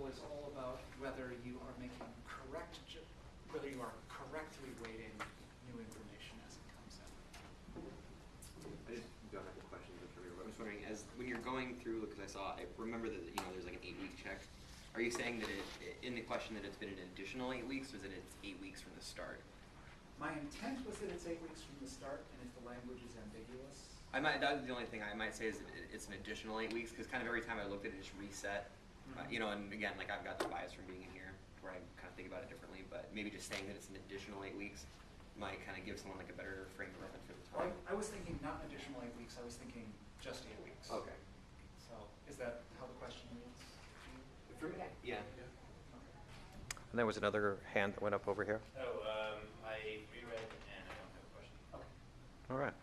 was all about whether you are making correct, ju- whether you are correctly weighting new information as it comes in. I just don't have the questions in front of me, but I'm just wondering, as, when you're going through, because I saw, I remember that, you know, there's like an eight-week check. Are you saying that it, in the question that it's been an additional eight weeks, or that it's eight weeks from the start? My intent was that it's eight weeks from the start, and if the language is ambiguous, I might, that's the only thing I might say is that it- it's an additional eight weeks, because kind of every time I looked at it, it just reset. Uh, Mhm. You know, and again, like I've got the bias from being in here, where I kind of think about it differently, but maybe just saying that it's an additional eight weeks might kind of give someone like a better frame of reference for the I, time. I was thinking not an additional eight weeks, I was thinking just eight weeks. Okay. So, is that how the question reads? For me, yeah. Okay. And there was another hand that went up over here. Oh, um, I reread and I don't have a question. Okay. All right.